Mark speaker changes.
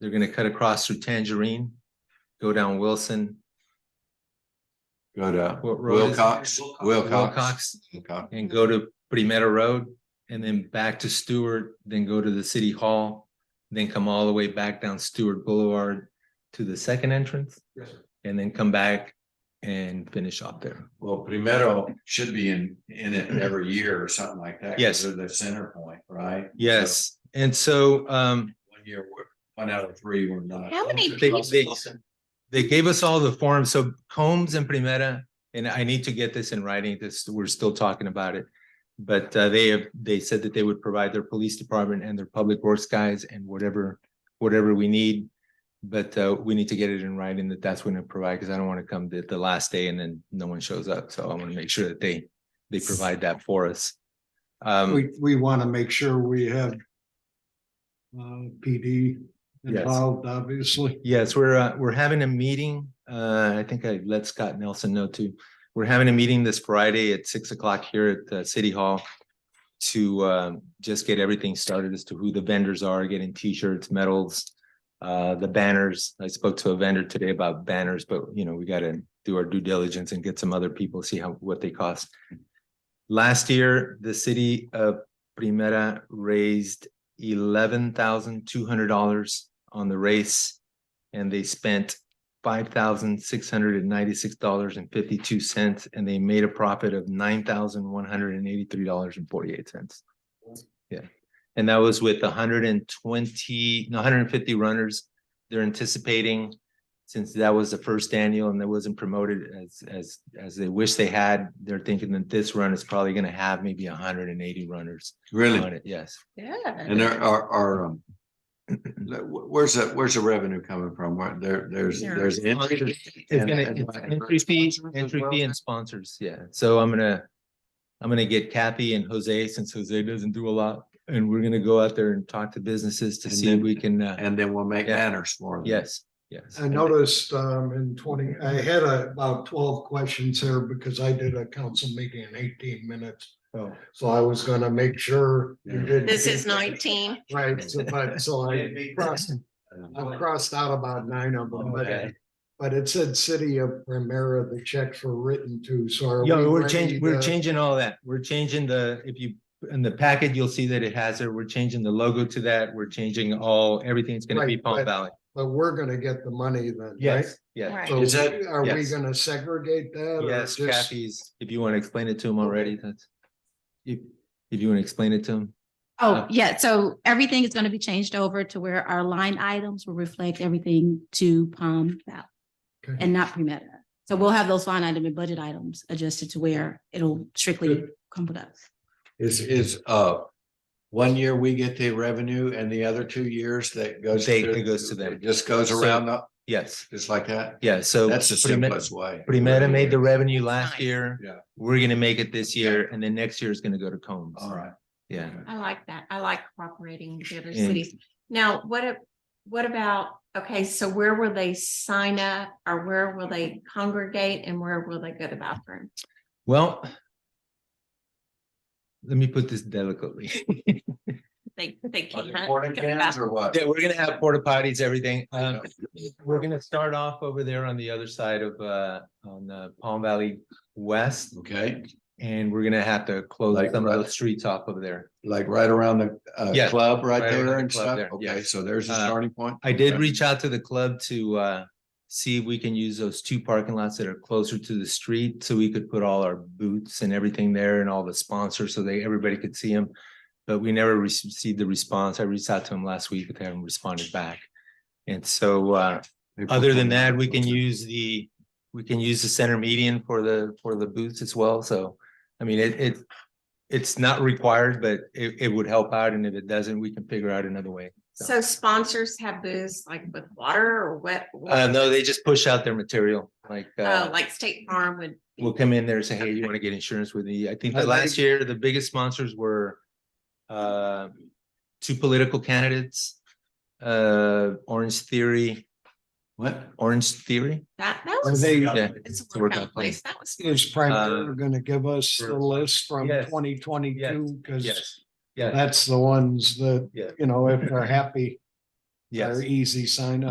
Speaker 1: They're gonna cut across through Tangerine, go down Wilson,
Speaker 2: Go to
Speaker 1: What road is it?
Speaker 2: Wilcox, Wilcox.
Speaker 1: Wilcox,
Speaker 2: Wilcox.
Speaker 1: and go to Pretty Meadow Road, and then back to Stewart, then go to the city hall, then come all the way back down Stewart Boulevard to the second entrance,
Speaker 3: Yes, sir.
Speaker 1: and then come back and finish off there.
Speaker 2: Well, Primero should be in, in it every year or something like that. 'cause
Speaker 1: Yes.
Speaker 2: They're the center point, right?
Speaker 1: Yes, and so um
Speaker 2: One year, we're- one out of three, we're not.
Speaker 4: How many
Speaker 1: They- they- they gave us all the forms, so Combs and Primera, and I need to get this in writing, this, we're still talking about it. But uh, they have, they said that they would provide their police department and their public works guys and whatever, whatever we need. But uh, we need to get it in writing that that's when to provide, because I don't want to come the, the last day and then no one shows up, so I want to make sure that they, they provide that for us. Um,
Speaker 3: We, we want to make sure we have uh, PD
Speaker 1: Yes.
Speaker 3: involved, obviously.
Speaker 1: Yes, we're, uh, we're having a meeting. Uh, I think I let Scott Nelson know too. We're having a meeting this Friday at six o'clock here at uh City Hall to, um, just get everything started as to who the vendors are, getting T-shirts, medals, uh, the banners. I spoke to a vendor today about banners, but you know, we gotta do our due diligence and get some other people, see how, what they cost. Last year, the city of Primera raised eleven thousand two hundred dollars on the race and they spent five thousand six hundred and ninety-six dollars and fifty-two cents, and they made a profit of nine thousand one hundred and eighty-three dollars and forty-eight cents. Yeah, and that was with hundred and twenty, no, hundred and fifty runners. They're anticipating, since that was the first annual and that wasn't promoted as, as, as they wish they had, they're thinking that this run is probably gonna have maybe hundred and eighty runners
Speaker 2: Really?
Speaker 1: on it, yes.
Speaker 2: And
Speaker 4: Yeah.
Speaker 2: there are, are, um, the- wh- where's that, where's the revenue coming from? Where there, there's,
Speaker 4: Yeah.
Speaker 2: there's. entry fee
Speaker 1: It's
Speaker 2: and-
Speaker 1: gonna,
Speaker 2: and-
Speaker 1: it's entry fee, entry fee and sponsors, yeah, so I'm gonna. I'm gonna get Kathy and Jose, since Jose doesn't do a lot, and we're gonna go out there and talk to businesses to
Speaker 2: And
Speaker 1: see if
Speaker 2: then-
Speaker 1: we can, uh,
Speaker 2: And then we'll make
Speaker 1: Yeah.
Speaker 2: banners for them.
Speaker 1: yes, yes.
Speaker 3: I noticed um, in twenty, I had uh, about twelve questions here because I did a council meeting in eighteen minutes.
Speaker 1: Oh.
Speaker 3: So I was gonna make sure you
Speaker 2: Yeah.
Speaker 3: didn't.
Speaker 4: This is nineteen.
Speaker 3: Right, so but so I crossed, I crossed out about nine of them, but
Speaker 2: Okay.
Speaker 3: but it said city of Primera, the checks were written to, so. are
Speaker 1: Yeah,
Speaker 3: we
Speaker 1: we're
Speaker 3: ready
Speaker 1: changing, we're
Speaker 3: to-
Speaker 1: changing all that, we're changing the, if you, in the packet, you'll see that it has it, we're changing the logo to that, we're changing all, everything's gonna be
Speaker 3: Right,
Speaker 1: Palm
Speaker 3: but-
Speaker 1: Valley.
Speaker 3: But we're gonna get the money then, right?
Speaker 1: Yes, yeah,
Speaker 4: Right.
Speaker 3: So
Speaker 2: Is that-
Speaker 3: are we
Speaker 1: yes.
Speaker 3: gonna segregate that? or
Speaker 1: yes,
Speaker 3: just-
Speaker 1: Kathy's, if you wanna explain it to him already, that's. If, if you wanna explain it to him.
Speaker 5: Oh, yeah. So everything is going to be changed over to where our line items will reflect everything to Palm Valley
Speaker 3: Okay.
Speaker 5: and not Premeta. So we'll have those line item and budget items adjusted to where it'll strictly come with us.
Speaker 2: Is, is, uh, one year we get the revenue and the other two years that goes.
Speaker 1: They-
Speaker 2: to-
Speaker 1: it goes to them.
Speaker 2: it Just goes
Speaker 1: So-
Speaker 2: around up,
Speaker 1: Yes,
Speaker 2: just like that.
Speaker 1: yeah, so.
Speaker 2: That's the
Speaker 1: Prime-
Speaker 2: simplest way.
Speaker 1: Primera made the revenue
Speaker 4: Nice.
Speaker 1: last year.
Speaker 2: Yeah.
Speaker 1: We're gonna make it this year and then next year is gonna go to Combs.
Speaker 2: All right.
Speaker 1: Yeah,
Speaker 4: I like that. I like cooperating with the other
Speaker 1: Yeah.
Speaker 4: cities. Now, what, ab- what about, okay, so where will they sign up or where will they congregate and where will they go to the bathroom?
Speaker 1: well. Let me put this delicately.
Speaker 4: They, they
Speaker 2: Are they
Speaker 4: can't.
Speaker 2: porta cans or what?
Speaker 1: Yeah, we're gonna have porta potties, everything. Um, we're gonna start off over there on the other side of uh, on uh Palm Valley West.
Speaker 2: Okay,
Speaker 1: And we're gonna have to close
Speaker 2: Like
Speaker 1: some of
Speaker 2: what?
Speaker 1: those streets off over there.
Speaker 2: like right around the, uh,
Speaker 1: Yeah,
Speaker 2: club right
Speaker 1: right around
Speaker 2: there
Speaker 1: the
Speaker 2: and
Speaker 1: club
Speaker 2: stuff.
Speaker 1: there,
Speaker 2: Okay,
Speaker 1: yes.
Speaker 2: so there's the
Speaker 1: Uh,
Speaker 2: starting point.
Speaker 1: I did
Speaker 2: Okay.
Speaker 1: reach out to the club to uh see if we can use those two parking lots that are closer to the street so we could put all our booths and everything there and all the sponsors so they everybody could see them. But we never rec- received the response. I reached out to them last week, but they haven't responded back. And so uh
Speaker 2: They put
Speaker 1: other than
Speaker 2: one-
Speaker 1: that, we can use the, we can use the center median for the for the booths as well. So I mean, it it it's not required, but it it would help out. And if it doesn't, we can figure out another way.
Speaker 4: So sponsors have booths like with water or what? what-
Speaker 1: Uh, no, they just push out their material, like,
Speaker 4: Oh,
Speaker 1: uh,
Speaker 4: like State Farm would.
Speaker 1: we'll come in there and say, hey, you want to get insurance with me? I think
Speaker 2: I
Speaker 1: that
Speaker 2: like-
Speaker 1: last year, the biggest sponsors were, uh, two political candidates, uh, Orange Theory,
Speaker 2: What?
Speaker 1: Orange Theory.
Speaker 4: That, that
Speaker 3: Are
Speaker 4: was.
Speaker 3: they,
Speaker 1: Yeah.
Speaker 4: It's
Speaker 1: to
Speaker 4: a
Speaker 1: work
Speaker 4: workout
Speaker 1: out plan.
Speaker 4: place. That was.
Speaker 3: is Primera gonna give us the list from
Speaker 1: Um, Yes.
Speaker 3: twenty twenty-two? Cause
Speaker 1: Yeah,
Speaker 3: that's the ones that,
Speaker 1: Yeah.
Speaker 3: you know, if they're happy,
Speaker 6: Yes.
Speaker 3: Our easy sign up.